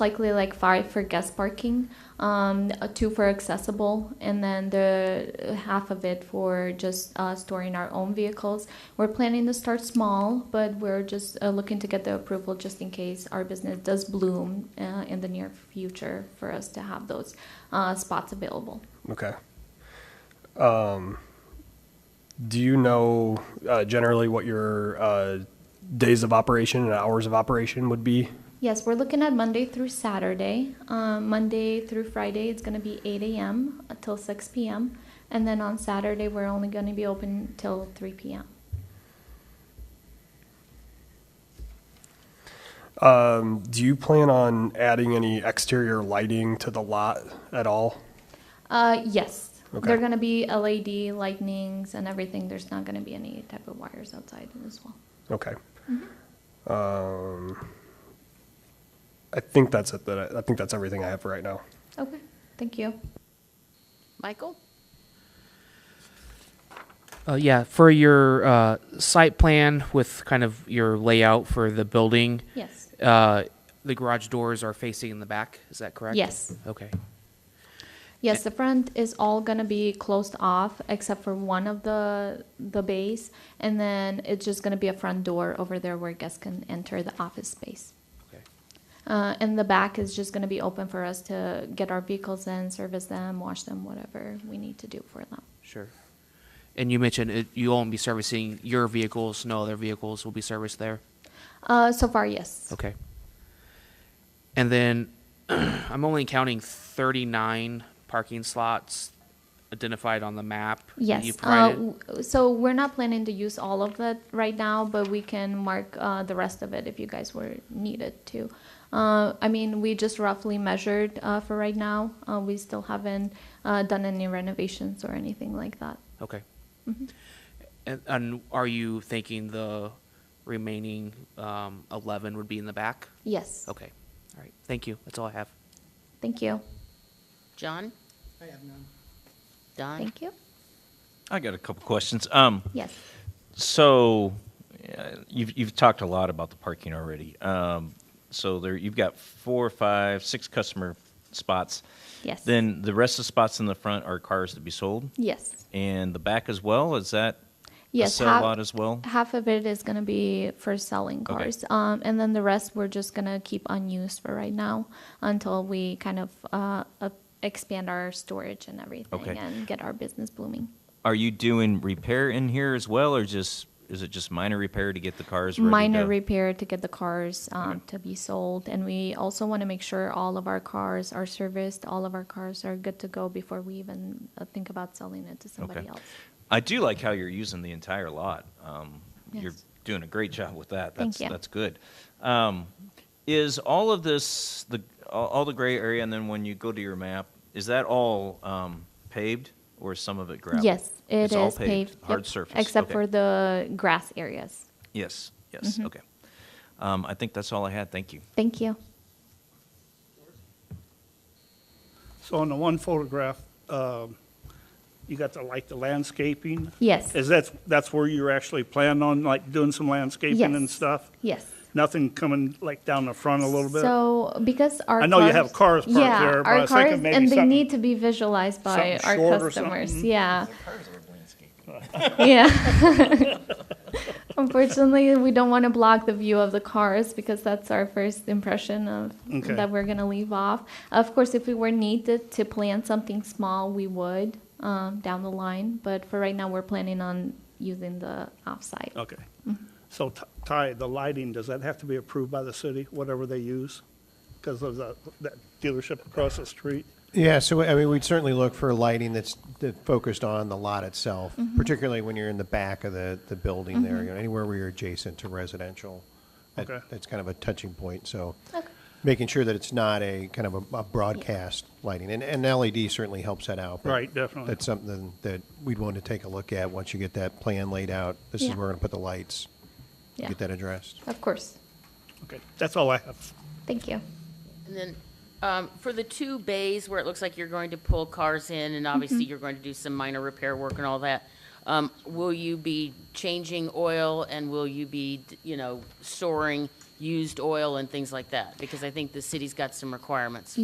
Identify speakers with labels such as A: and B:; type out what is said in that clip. A: likely like five for guest parking, um, uh, two for accessible, and then the half of it for just uh, storing our own vehicles. We're planning to start small, but we're just uh, looking to get the approval just in case our business does bloom uh, in the near future for us to have those uh, spots available.
B: Okay. Um, do you know uh, generally what your uh, days of operation and hours of operation would be?
A: Yes, we're looking at Monday through Saturday. Um, Monday through Friday, it's going to be 8 a.m. till 6 p.m. And then on Saturday, we're only going to be open till 3 p.m.
B: Um, do you plan on adding any exterior lighting to the lot at all?
A: Uh, yes.
B: Okay.
A: They're going to be LED lightnings and everything. There's not going to be any type of wires outside as well.
B: Okay. Um, I think that's it. That I, I think that's everything I have for right now.
A: Okay, thank you.
C: Michael?
D: Uh, yeah, for your uh, site plan with kind of your layout for the building,
A: Yes.
D: uh, the garage doors are facing in the back. Is that correct?
A: Yes.
D: Okay.
A: Yes, the front is all gonna be closed off except for one of the the bays, and then it's just gonna be a front door over there where guests can enter the office space.
D: Okay.
A: Uh, and the back is just gonna be open for us to get our vehicles in, service them, wash them, whatever we need to do for them.
D: Sure. And you mentioned it, you won't be servicing your vehicles. No other vehicles will be serviced there.
A: Uh, so far, yes.
D: Okay. And then I'm only counting 39 parking slots identified on the map. that
A: Yes.
D: You
A: uh,
D: provided.
A: w- so we're not planning to use all of that right now, but we can mark uh, the rest of it if you guys were needed to. Uh, I mean, we just roughly measured uh, for right now. Uh, we still haven't uh, done any renovations or anything like that.
D: Okay. And, and are you thinking the remaining um, 11 would be in the back?
A: Yes.
D: Okay. All right. Thank you. That's all I have.
A: Thank you.
C: John?
E: I have none.
C: Don?
A: Thank you.
F: I got a couple questions. Um,
A: Yes.
F: so uh, you've you've talked a lot about the parking already. Um, so there you've got four, five, six customer spots.
A: Yes.
F: Then the rest of the spots in the front are cars to be sold,
A: Yes.
F: and the back as well. Is that
A: Yes.
F: a sell
A: half-
F: lot as well?
A: Half of it is going to be for selling
F: Okay.
A: cars, um, and then the rest we're just going to keep unused for right now until we kind of uh, uh, expand our storage and everything
F: Okay.
A: and get our business blooming.
F: Are you doing repair in here as well, or just is it just minor repair to get the cars ready
A: Minor
F: to-
A: repair to get the cars um, to be sold, and we also want to make sure all of our cars are serviced, all of our cars are good to go before we even uh, think about selling it to somebody else.
F: I do like how you're using the entire lot. Um, You're
A: Yes.
F: doing a great job with that.
A: Thank
F: That's,
A: you.
F: that's good. Um, is all of this the all, all the gray area, and then when you go to your map, is that all um, paved or is some of it gravel?
A: Yes, it
F: it's all
A: is paved, yep,
F: hard surface,
A: except
F: Okay.
A: for the Mm-hmm. grass areas.
F: Yes, yes, okay. Um, I think that's all I had. Thank you.
A: Thank you.
E: So on the one photograph, um, you got the, like, the landscaping?
A: Yes.
E: Is that, that's where you're actually planning on, like, doing some landscaping and
A: Yes.
E: stuff?
A: Yes.
E: Nothing coming, like, down the front a little bit?
A: So because our
E: I know you have cars parked
A: yeah,
E: there, but
A: our
E: I was thinking
A: cars,
E: maybe
A: and they
E: something-
A: need to be visualized by
E: something
A: our
E: short or
A: customers.
E: something.
A: Yeah. yeah. Unfortunately, we don't want to block the view of the cars because that's our first impression of
E: Okay.
A: that we're gonna leave off. Of course, if we were needed to plan something small, we would um, down the line. But for right now, we're planning on using the offsite.
E: Okay. So T- Ty, the lighting, does that have to be approved by the city, whatever they use? Because of the, that dealership across the street?
G: Yeah, so I mean, we'd certainly look for lighting that's that focused on the lot itself,
E: Mm-hmm.
G: particularly when you're in the back of the, the building there, you know, anywhere where you're adjacent to residential. That-
E: Okay.
G: That's kind of a touching point. So making sure that it's not a kind of a, a broadcast lighting, and, and LED certainly helps that out. but
E: Right, definitely.
G: That's something that we'd want to take a look at once you get that plan laid out. This is
A: Yeah.
G: where we're going to put the lights.
A: Yeah.
G: Get that addressed.
A: Of course.
E: Okay, that's all I have.
A: Thank you.
C: And then, um, for the two bays where it looks like you're going to pull cars in, and
A: Mm-hmm.
C: obviously you're going to do some minor repair work and all that, um, will you be changing oil and will you be, you know, storing used oil and things like that? Because I think the city's got some requirements